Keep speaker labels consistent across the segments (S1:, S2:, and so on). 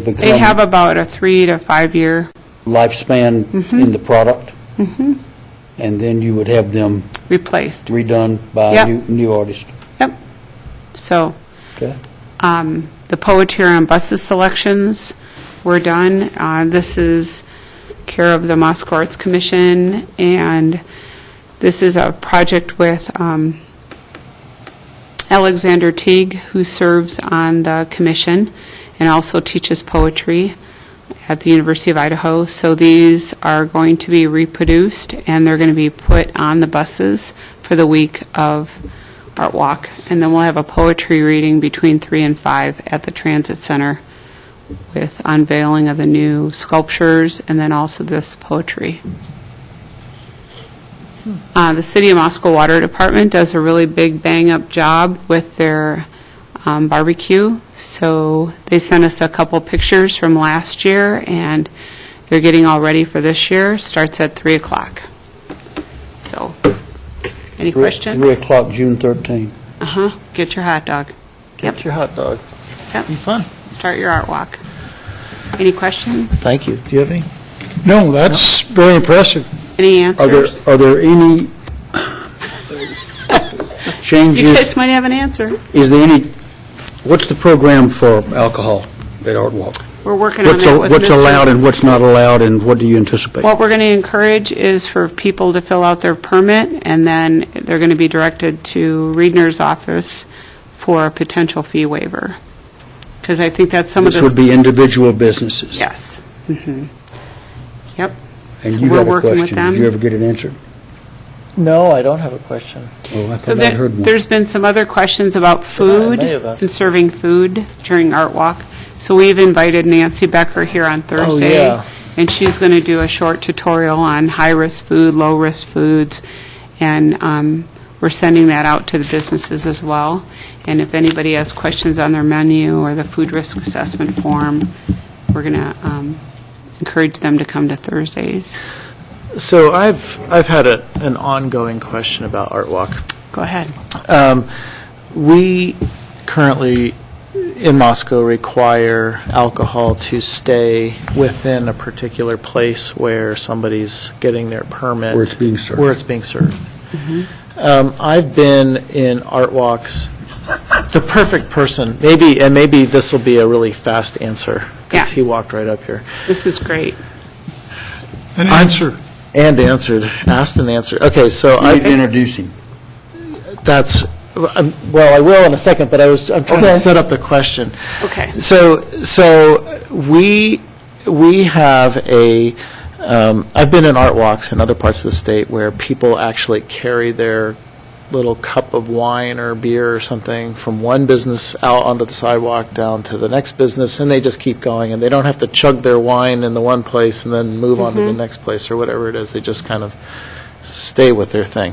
S1: become
S2: They have about a three to five-year
S1: lifespan
S2: Mm-hmm.
S1: in the product, and then you would have them
S2: replaced.
S1: redone by a
S2: Yep.
S1: new- new artist.
S2: Yep. So
S1: Okay.
S2: um, the poetry and buses selections were done. Uh, This is care of the Moscow Arts Commission, and this is a project with um, Alexander Teague, who serves on the commission and also teaches poetry at the University of Idaho. So these are going to be reproduced, and they're going to be put on the buses for the week of Art Walk. And then we'll have a poetry reading between 3 and 5 at the Transit Center with unveiling of the new sculptures and then also this poetry. Uh, The City of Moscow Water Department does a really big bang-up job with their um, barbecue. So they sent us a couple pictures from last year, and they're getting all ready for this year. Starts at 3 o'clock. So, any questions?
S1: 3 o'clock, June 13.
S2: Uh-huh, get your hot dog.
S3: Get your hot dog.
S2: Yep,
S3: Be fun.
S2: start your art walk. Any questions?
S3: Thank you. Do you have any?
S4: No, that's very impressive.
S2: Any
S1: Are there,
S2: answers?
S1: are there any
S2: You
S1: changes,
S2: guys might have an answer.
S1: is there any, what's the program for alcohol at Art Walk?
S2: We're working on
S1: What's
S2: that
S1: al-
S2: with
S1: what's
S2: Mr.
S1: allowed and what's not allowed, and what do you anticipate?
S2: What we're going to encourage is for people to fill out their permit, and then they're going to be directed to Reedner's office for a potential fee waiver. Because I think that's some of
S1: This
S2: the...
S1: would be individual businesses.
S2: Yes. Mhm. Yep.
S1: And
S2: So
S1: you
S2: we're
S1: had a
S2: working with
S1: question. Did
S2: them.
S1: you ever get it answered?
S3: No, I don't have a question.
S1: Oh, I
S2: So
S1: thought I'd
S2: there-
S1: heard one.
S2: there's been some other questions about food
S3: may have asked.
S2: and serving food during Art Walk. So we've invited Nancy Becker here on Thursday.
S3: Oh, yeah.
S2: And she's going to do a short tutorial on high-risk food, low-risk foods, and um, we're sending that out to the businesses as well. And if anybody has questions on their menu or the food risk assessment form, we're going to encourage them to come to Thursdays.
S3: So I've, I've had a, an ongoing question about Art Walk.
S2: Go ahead.
S3: Um, We currently, in Moscow, require alcohol to stay within a particular place where somebody's getting their permit.
S1: Where it's being served.
S3: Where it's being served. Um, I've been in art walks, the perfect person, maybe, and maybe this will be a really fast answer, because
S2: Yeah.
S3: he walked right up here.
S2: This is great.
S4: An answer.
S3: And answered, asked and answered. Okay, so
S1: You need to
S3: I,
S1: introduce him.
S3: that's, um, well, I will in a second, but I was, I'm trying
S1: Okay.
S3: to set up the question.
S2: Okay.
S3: So, so we, we have a, um, I've been in art walks in other parts of the state where people actually carry their little cup of wine or beer or something from one business out onto the sidewalk down to the next business, and they just keep going, and they don't have to chug their wine in the one place and then move on to the next place or whatever it is. They just kind of stay with their thing.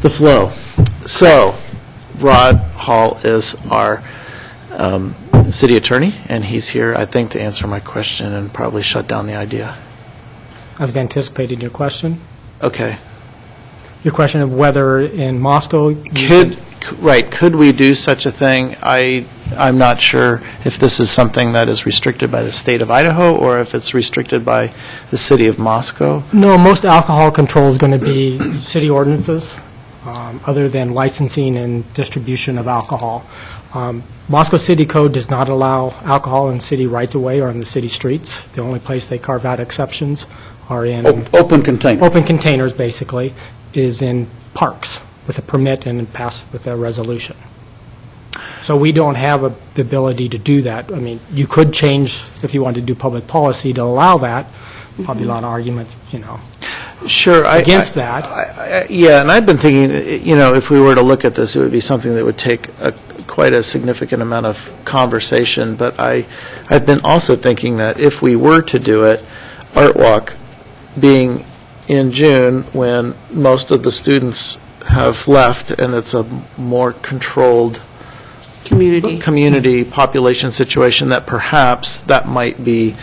S3: The flow. So, Rod Hall is our um, city attorney, and he's here, I think, to answer my question and probably shut down the idea.
S5: I was anticipating your question.
S3: Okay.
S5: Your question of whether in Moscow. you
S3: Could,
S5: can-
S3: c- right, could we do such a thing? I, I'm not sure if this is something that is restricted by the state of Idaho or if it's restricted by the city of Moscow.
S5: No, most alcohol control is going to be city ordinances, um, other than licensing and distribution of alcohol. Um, Moscow City Code does not allow alcohol in city rights-of-way or on the city streets. The only place they carve out exceptions are in,
S1: Op- Open container.
S5: open containers, basically, is in parks with a permit and passed with a resolution. So we don't have a- the ability to do that. I mean, you could change, if you wanted to do public policy, to allow that. Probably a lot of arguments, you know.
S3: Sure. I-
S5: Against
S3: I-
S5: that.
S3: I- I- Yeah, and I've been thinking, that, you know, if we were to look at this, it would be something that would take a- quite a significant amount of conversation, but I, I've been also thinking that if we were to do it, Art Walk being in June, when most of the students have left, and it's a more controlled
S2: Community.
S3: community population situation that perhaps that might be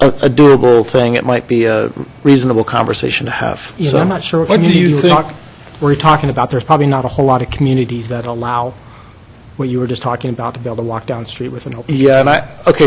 S3: a a doable thing, it might be a reasonable conversation to have.
S5: Ian,
S3: So-
S5: I'm not sure what
S4: What do
S5: community
S4: you
S5: you were
S4: think-
S5: talk- were you talking about. There's probably not a whole lot of communities that allow what you were just talking about, to be able to walk down the street with an open
S3: Yeah, and I, okay,